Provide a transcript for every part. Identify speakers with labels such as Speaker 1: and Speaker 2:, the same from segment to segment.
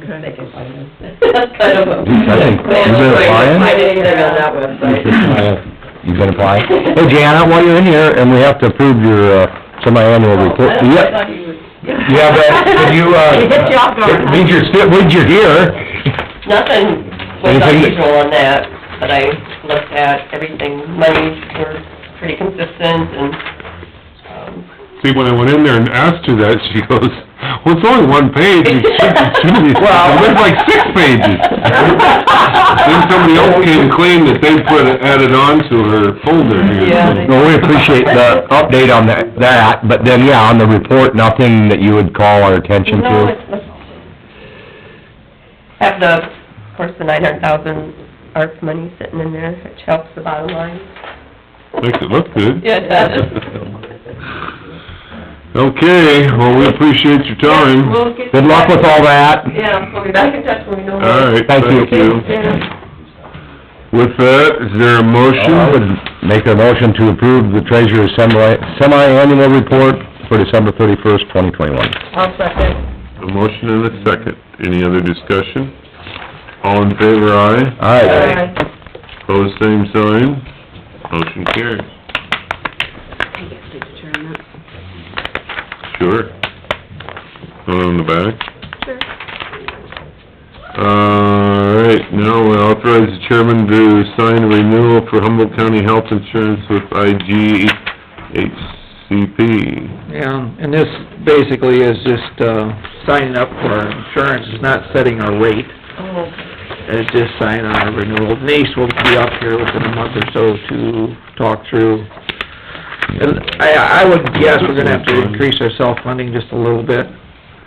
Speaker 1: They
Speaker 2: Okay.
Speaker 1: can find them. That's kind of a...
Speaker 3: I think-
Speaker 1: Man,
Speaker 3: you been
Speaker 1: that's why
Speaker 3: applying?
Speaker 1: I didn't get on that website.
Speaker 3: You've been applying? Hey, Jana, while you're in here, and we have to approve your, uh, semi-annual report.
Speaker 1: Oh, I
Speaker 3: Yeah,
Speaker 1: thought you would-
Speaker 3: yeah, but did you, uh...
Speaker 1: It hit you off guard.
Speaker 3: Did you, would you hear?
Speaker 1: Nothing was
Speaker 3: Anything that-
Speaker 1: unusual on that, but I looked at everything, monies were pretty consistent and, um,
Speaker 4: See, when I went in there and asked her that, she goes, well, it's only one page, it should be two,
Speaker 3: Well-
Speaker 4: it looked like six pages. Then somebody else came and claimed that they put, added on to her folder
Speaker 1: Yeah,
Speaker 4: here.
Speaker 1: they-
Speaker 3: Well, we appreciate the update on that, that, but then, yeah, on the report, nothing that you would call our attention
Speaker 1: no,
Speaker 3: to?
Speaker 1: it's, it's- have the, of course, the nine hundred thousand ARP money sitting in there, which helps the bottom line.
Speaker 4: Makes it look good.
Speaker 1: Yeah, it does.
Speaker 4: Okay, well, we appreciate your
Speaker 1: Yeah,
Speaker 4: time.
Speaker 1: we'll get-
Speaker 3: Good luck with all that.
Speaker 1: Yeah, we'll be back in touch when we know more.
Speaker 4: All right,
Speaker 3: Thank you.
Speaker 4: thank you.
Speaker 1: Yeah.
Speaker 4: With that, is there a
Speaker 3: Uh, I would
Speaker 4: motion?
Speaker 3: make a motion to approve the treasurer's semi, semi-annual report for December thirty-first, twenty twenty-one.
Speaker 1: I'll second.
Speaker 4: A motion and a second. Any other discussion? All in favor, aye?
Speaker 3: Aye.
Speaker 4: Pose same sign, motion carries. Sure. One on the back? Sure. All right, now we authorize the chairman to sign a renewal for Humboldt County Health Insurance with IGHCP.
Speaker 5: Yeah, and this basically is just, uh, signing up for our insurance, it's not setting our rate,
Speaker 1: Oh,
Speaker 5: it's just signing on our renewal. Denise will be up here within a month or so to talk through. And I, I would guess we're gonna have to increase our self-funding just a little bit.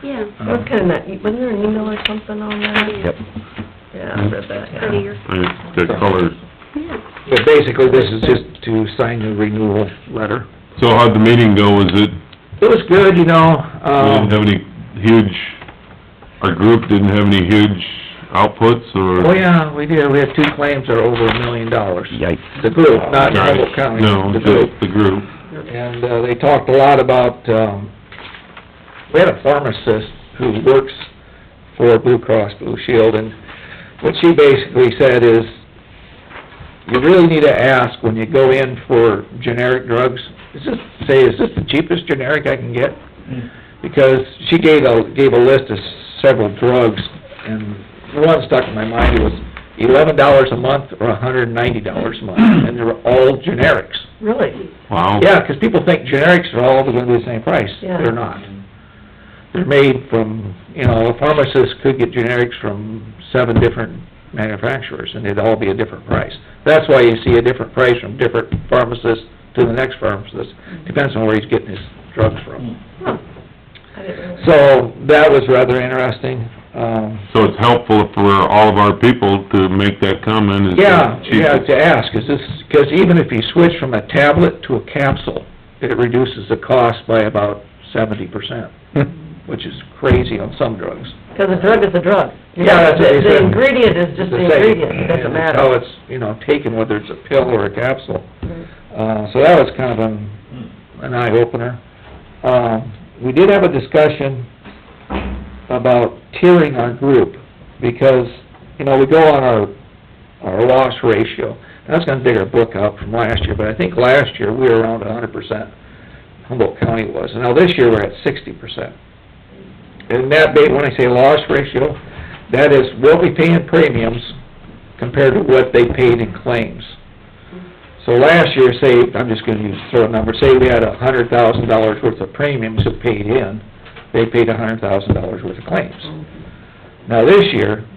Speaker 6: Yeah,
Speaker 1: that was kinda, neat. wasn't there an email or something on that?
Speaker 3: Yep.
Speaker 1: Yeah, I read that, yeah.
Speaker 6: prettier,
Speaker 4: I- The colors.
Speaker 6: yeah.
Speaker 5: But basically, this is just to sign the renewal letter.
Speaker 4: So how'd the meeting go? Was it,
Speaker 5: It was good, you know,
Speaker 4: we
Speaker 5: um...
Speaker 4: didn't have any huge, our group didn't have any huge outputs or?
Speaker 5: Oh, yeah, we did, we had two claims that are over a million dollars.
Speaker 3: Yikes.
Speaker 5: The group, not Humboldt
Speaker 4: Right.
Speaker 5: County.
Speaker 4: No,
Speaker 5: the
Speaker 4: just
Speaker 5: group.
Speaker 4: the group.
Speaker 5: And, uh, they talked a lot about, um, we had a pharmacist who works for Blue Cross Blue Shield, and what she basically said is, you really need to ask when you go in for generic drugs, is this, say, is this the cheapest generic I can get? Because she gave a, gave a list of several drugs, and the one stuck in my mind was eleven dollars a month or a hundred and ninety dollars a month, and they were all generics.
Speaker 1: Really?
Speaker 4: Wow.
Speaker 5: Yeah, 'cause people think generics are all gonna be the same price.
Speaker 1: Yeah.
Speaker 5: They're not. They're made from, you know, a pharmacist could get generics from seven different manufacturers, and they'd all be a different price. That's why you see a different price from different pharmacists to the next pharmacist, depends on where he's getting his drugs from.
Speaker 1: Huh. I didn't realize.
Speaker 5: So, that was rather interesting. Um,
Speaker 4: So it's helpful for all of our people to make that comment is
Speaker 5: Yeah,
Speaker 4: that
Speaker 5: yeah,
Speaker 4: cheap.
Speaker 5: to ask, is this, because even if you switch from a tablet to a capsule, it reduces the cost by about seventy percent, which is crazy on some drugs.
Speaker 1: Because a drug is a drug.
Speaker 5: Yeah, that's what they
Speaker 1: The- The
Speaker 5: said.
Speaker 1: ingredient is just the
Speaker 5: It's the same.
Speaker 1: ingredient, it doesn't
Speaker 5: And
Speaker 1: matter.
Speaker 5: How it's, you know, taken, whether it's a pill or a capsule.
Speaker 1: Mm.
Speaker 5: Uh, so that was kind of an, an eye-opener. Um, we did have a discussion about tiering our group, because, you know, we go on our, our loss ratio. And I was gonna dig our book up from last year, but I think last year we were around a hundred percent, Humboldt County was. And now this year we're at sixty percent. And that, ba- when I say loss ratio, that is what we pay in premiums compared to what they paid in claims. So last year, say, I'm just gonna use, throw a number, say we had a hundred thousand dollars worth of premiums that paid in, they paid a hundred thousand dollars worth of claims. Now this year,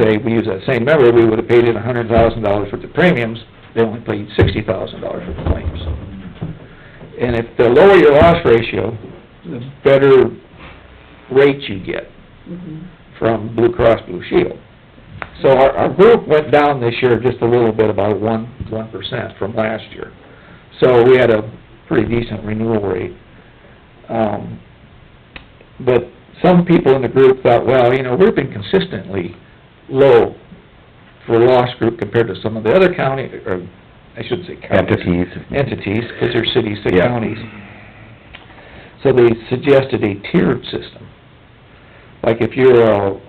Speaker 5: say, we use that same number, we would've paid in a hundred thousand dollars worth of premiums, they only paid sixty thousand dollars worth of claims. And if the lower your loss ratio, the better rate you get from Blue Cross Blue Shield. So our, our group went down this year just a little bit, about one, one percent from last year. So we had a pretty decent renewal rate. Um, but some people in the group thought, well, you know, we've been consistently low for loss group compared to some of the other county, or, I shouldn't say counties
Speaker 3: Entities.
Speaker 5: entities, because they're cities, they're
Speaker 3: Yeah.
Speaker 5: counties. So they suggested a tiered system. Like if you're a